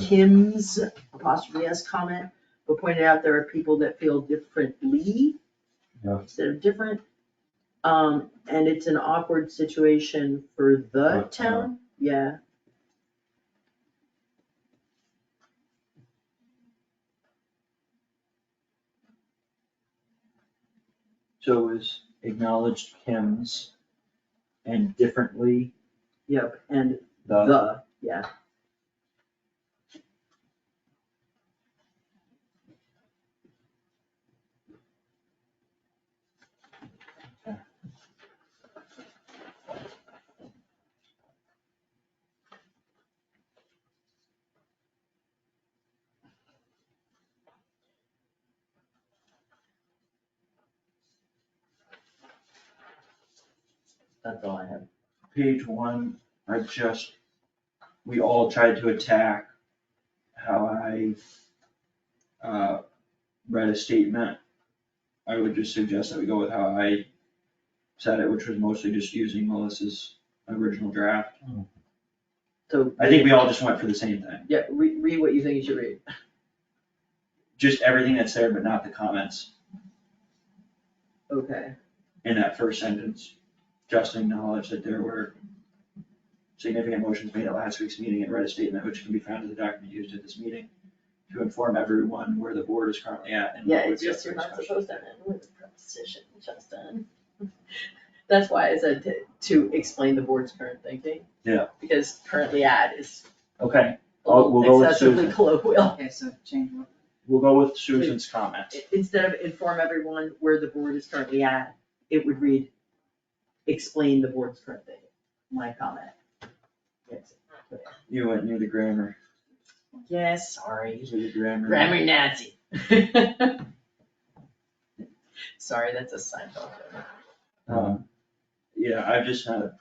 Kim's apostrophe S comment, but pointed out there are people that feel differently. Yeah. Instead of different, um, and it's an awkward situation for the The town. town, yeah. So is acknowledged Kim's and differently Yep, and the, the, yeah, that's all I have. Page one, I just, we all tried to attack how I uh, read a statement. I would just suggest that we go with how I said it, which was mostly just using Melissa's original draft. so. I think we all just went for the same thing, Yeah, read, read what you think you should read. just everything that's there, but not the comments Okay, in that first sentence. Just acknowledge that there were significant motions made at last week's meeting and read a statement which can be found in the document used at this meeting to inform everyone where the board is currently at and Yeah, what would it's be up just for you're not discussion. supposed to end with a preposition, Justin. that's why I said to, to explain the board's current thinking. Yeah. Because currently ad is Okay, a I'll- we'll go little with excessively Susan. colloquial. Okay, so change what? we'll go with Susan's comment. I- Instead of inform everyone where the board is currently at, it would read, explain the board's current thinking, my comment. Yes. You went near the grammar, Yes, sorry, usually the grammar. grammar Nazi. Sorry, that's a Seinfeld. joke. Um, yeah, I've just had,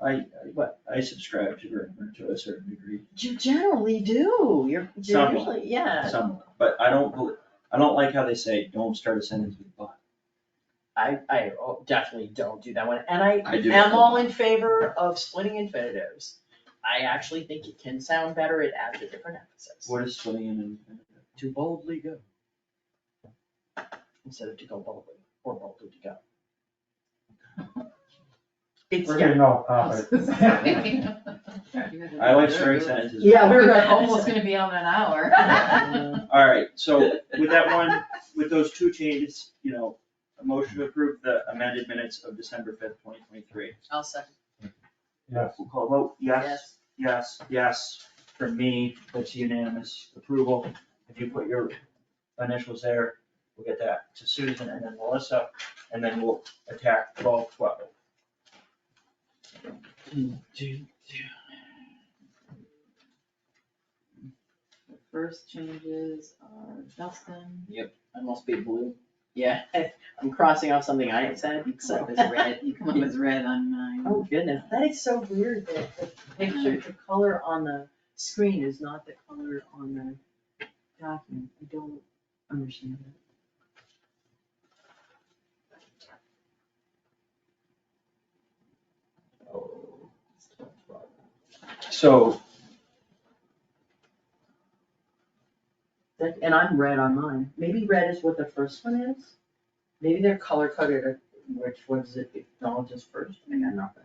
I, I- but I subscribe to grammar to a certain degree, You generally do, you're, you're Somewhat. usually, Uh, yeah, some, but I don't, bel- I don't like how they say, don't start a sentence with but. I, I oh, definitely don't do that one, and I I do. am all in favor of splitting infinitives. I actually think it can sound better, it adds a different emphasis. What is splitting in and? To boldly go. Instead of to go boldly, or boldly to go. It's, We're yeah, getting uh, off topic. I like string sentences. Yeah, we're We're gonna- almost gonna be on an hour. Alright, so with that one, with those two changes, you know, a motion to approve the amended minutes of December fifth, twenty twenty-three. I'll second. Yes, We'll call a vote, yes, yes, yes, yes, for me, that's unanimous approval. If you put your initials there, we'll get that to Susan and then Melissa, and then we'll attack twelve twelve. The First changes are Justin. I must be blue. Yeah, I'm crossing off something I said, So so. it was red, you come up with red on mine. Oh goodness, that is so weird that the picture, the color on the screen is not the color on the document. I don't understand that. Oh, it's twelve twelve. So, That- And I'm red on mine. Maybe red is what the first one is? Maybe they're color coded, or which ones it acknowledges first? I got nothing.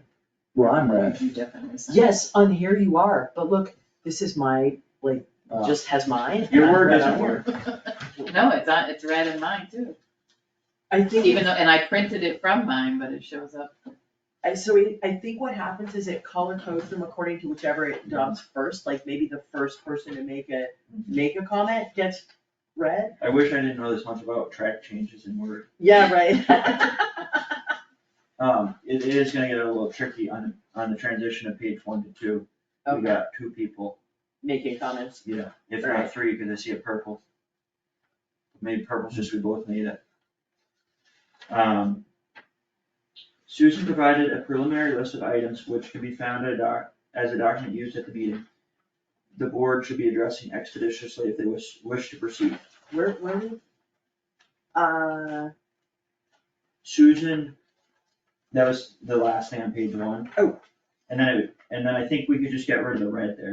well, I'm red. You definitely. said- Yes, on here you are, but look, this is my, like, Uh, just has mine. Your and I'm word red doesn't on work. No, it's on, it's red in mine too, I think. even though, and I printed it from mine, but it shows up. I, so it- I think what happens is it color codes them according to whichever it adopts first, like maybe the first person to make a, make a comment gets read. I wish I didn't know this much about track changes in Word. Yeah, right. Um, it it is gonna get a little tricky on, on the transition of page one to two. We Okay, got two people, making comments. yeah, if Right. not three, because I see a purple. Maybe purple's just we both need it. Um. Susan provided a preliminary list of items which can be found at a doc, as a document used at the meeting. The board should be addressing expeditiously if they wish, wish to proceed. Where, where, we- uh, Susan, that was the last thing on page one. Oh. And then, it- and then I think we could just get rid of the red there.